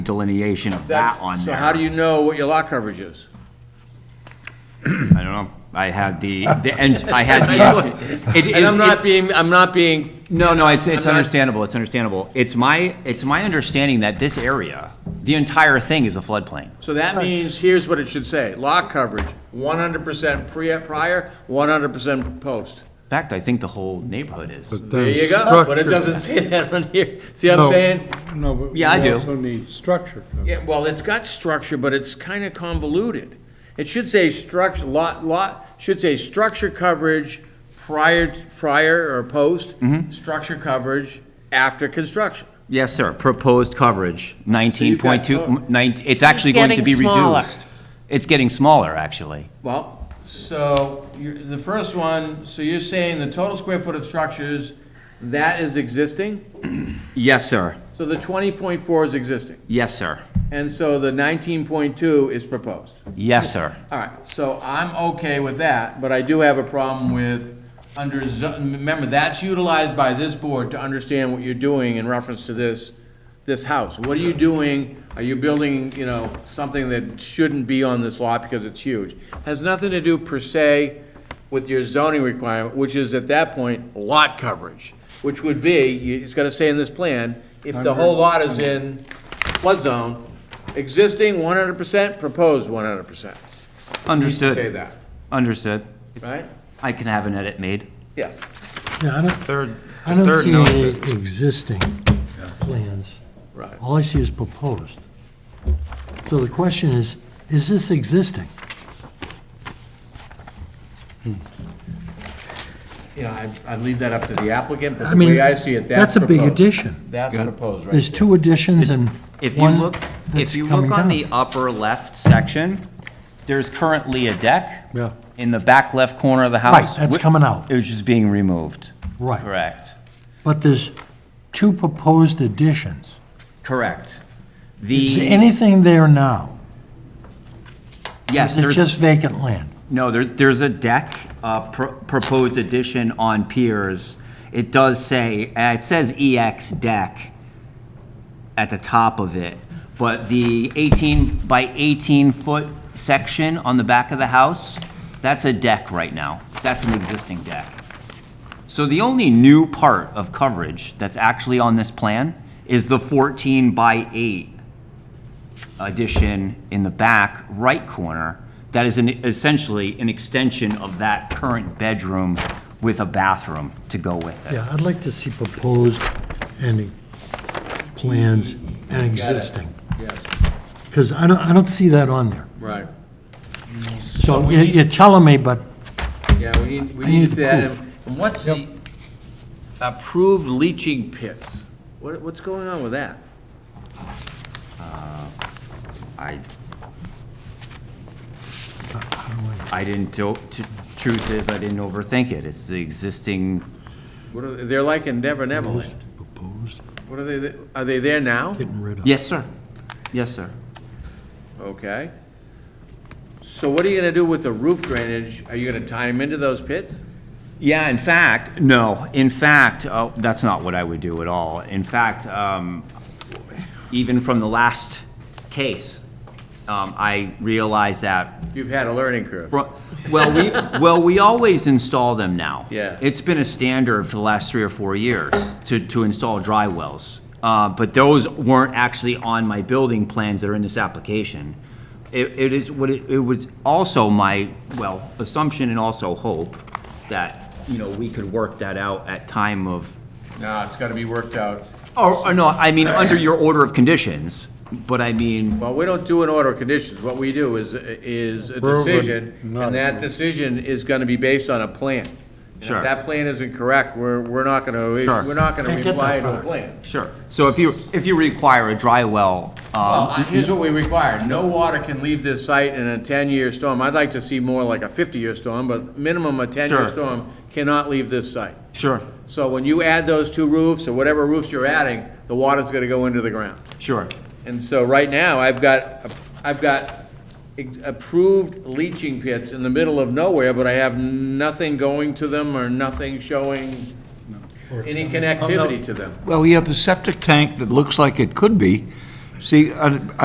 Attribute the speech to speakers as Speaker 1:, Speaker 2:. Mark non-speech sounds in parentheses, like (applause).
Speaker 1: delineation of that
Speaker 2: That's-
Speaker 1: on
Speaker 2: So
Speaker 1: there.
Speaker 2: how do you know what your lot coverage is?
Speaker 1: I don't know. I had the, the, and I had
Speaker 2: (laughs)
Speaker 1: the. it
Speaker 2: And
Speaker 1: is-
Speaker 2: I'm
Speaker 1: it-
Speaker 2: not being, I'm not being,
Speaker 1: No, no, it's, it's
Speaker 2: not-
Speaker 1: understandable, it's understandable. It's my, it's my understanding that this area, the entire thing is a floodplain.
Speaker 2: so that means, here's what it should say, lot coverage, one hundred percent pre, prior, one hundred percent post.
Speaker 1: In fact, I think the whole neighborhood is.
Speaker 2: There you go, but it doesn't (laughs) say that on here, see what I'm saying?
Speaker 3: No, but we
Speaker 1: Yeah, I do.
Speaker 3: also need structure. coverage.
Speaker 2: Yeah, well, it's got structure, but it's kinda convoluted. It should say structure, lot, lot, should say structure coverage prior, prior or post,
Speaker 1: Mm-hmm.
Speaker 2: structure coverage after construction.
Speaker 1: Yes, sir, proposed coverage, nineteen point
Speaker 2: So
Speaker 1: two,
Speaker 2: you've got
Speaker 1: nine, it's actually going to
Speaker 4: getting
Speaker 1: be
Speaker 4: smaller.
Speaker 1: reduced. It's getting smaller, actually.
Speaker 2: Well, so, you're, the first one, so you're saying the total square foot of structures, that is existing?
Speaker 1: Yes, sir,
Speaker 2: So the twenty point four is existing,
Speaker 1: yes, sir,
Speaker 2: and so the nineteen point two is proposed.
Speaker 1: yes, sir.
Speaker 2: All right, so I'm okay with that, but I do have a problem with under, zo- remember, that's utilized by this board to understand what you're doing in reference to this, this house. What are you doing? Are you building, you know, something that shouldn't be on this lot because it's huge? Has nothing to do per se with your zoning requirement, which is at that point, lot coverage, which would be, you- it's gotta say in this plan, if the whole lot is in flood zone, existing one hundred percent, proposed one hundred percent.
Speaker 1: Understood.
Speaker 2: Say that,
Speaker 1: Understood.
Speaker 2: right?
Speaker 1: I can have an edit made.
Speaker 2: Yes.
Speaker 5: Yeah, I don't,
Speaker 6: Third,
Speaker 5: I
Speaker 6: the third
Speaker 5: don't
Speaker 6: notice.
Speaker 5: see any
Speaker 6: it-
Speaker 5: existing plans.
Speaker 2: Right.
Speaker 5: All I see is proposed. So the question is, is this existing?
Speaker 2: You know, I'd, I'd leave that up to the applicant, but
Speaker 5: I
Speaker 2: the way
Speaker 5: mean,
Speaker 2: I see it, that's
Speaker 5: that's a big
Speaker 2: proposed.
Speaker 5: addition.
Speaker 2: That's proposed, right?
Speaker 5: There's two additions and
Speaker 1: If you
Speaker 5: one
Speaker 1: look,
Speaker 5: that's
Speaker 1: if you look
Speaker 5: coming
Speaker 1: on the
Speaker 5: down.
Speaker 1: upper left section, there's currently a deck.
Speaker 5: Yeah.
Speaker 1: In the back left corner of the house.
Speaker 5: Right, that's
Speaker 1: Wh-
Speaker 5: coming out.
Speaker 1: It was just being removed.
Speaker 5: Right.
Speaker 1: Correct,
Speaker 5: But there's two proposed additions.
Speaker 1: correct.
Speaker 5: Is there
Speaker 1: The,
Speaker 5: anything there now?
Speaker 1: yes,
Speaker 5: Is it just
Speaker 1: there's,
Speaker 5: vacant land?
Speaker 1: no, there, there's a deck, uh, pro- proposed addition on piers. It does say, uh, it says EX deck at the top of it, but the 18 by 18 foot section on the back of the house, that's a deck right now. That's an existing deck. So the only new part of coverage that's actually on this plan is the 14 by 8 addition in the back right corner. That is an- essentially an extension of that current bedroom with a bathroom to go with it.
Speaker 5: Yeah, I'd like to see proposed and plans and existing.
Speaker 2: Yes,
Speaker 5: Because I don't, I don't see that on there.
Speaker 2: right.
Speaker 5: So you- you're telling me, but
Speaker 2: Yeah, we need, we
Speaker 5: I
Speaker 2: need
Speaker 5: need
Speaker 2: to say that.
Speaker 5: proof.
Speaker 2: And what's the approved leaching pits? What, what's going on with that?
Speaker 1: I,
Speaker 5: how do I-
Speaker 1: I didn't, do- t- truth is, I didn't overthink it. It's the existing,
Speaker 2: What are, they- they're like in Never Neverland.
Speaker 5: proposed,
Speaker 2: What are they, are they there now?
Speaker 5: getting rid of.
Speaker 1: yes, sir. Yes, sir.
Speaker 2: Okay. So what are you gonna do with the roof drainage? Are you gonna tie them into those pits?
Speaker 1: Yeah, in fact, no, in fact, uh, that's not what I would do at all. In fact, um, even from the last case, um, I realized that,
Speaker 2: You've had a learning curve.
Speaker 1: well, we, well, we always install them now.
Speaker 2: Yeah.
Speaker 1: It's been a standard for the last three or four years to, to install dry wells. Uh, But those weren't actually on my building plans that are in this application. It, it is, what it, it was also my, well, assumption and also hope that, you know, we could work that out at time of,
Speaker 2: No, it's gotta be worked out.
Speaker 1: or, or no, I mean, under your order of conditions, but I mean,
Speaker 2: Well, we don't do an order of conditions. What we do is, is a
Speaker 3: We're over-
Speaker 2: decision,
Speaker 3: not-
Speaker 2: and that decision is gonna be based on a plan. And
Speaker 1: Sure.
Speaker 2: If that plan isn't correct, we're, we're not gonna, is-
Speaker 1: Sure.
Speaker 2: we're not gonna
Speaker 5: Can't get
Speaker 2: reply
Speaker 5: that
Speaker 2: to a
Speaker 5: far.
Speaker 2: plan.
Speaker 1: sure. So if you, if you require a dry well,
Speaker 2: Well,
Speaker 1: um,
Speaker 2: I- here's what we require. No water can leave this site in a ten-year storm. I'd like to see more like a fifty-year storm, but minimum a ten-year
Speaker 1: Sure.
Speaker 2: storm cannot leave this site.
Speaker 1: sure,
Speaker 2: So when you add those two roofs, or whatever roofs you're adding, the water's gonna go into the ground.
Speaker 1: sure.
Speaker 2: And so right now, I've got, I've got approved leaching pits in the middle of nowhere, but I have nothing going to them or nothing showing any connectivity to them.
Speaker 7: Well, you have the septic tank that looks like it could be, See, I,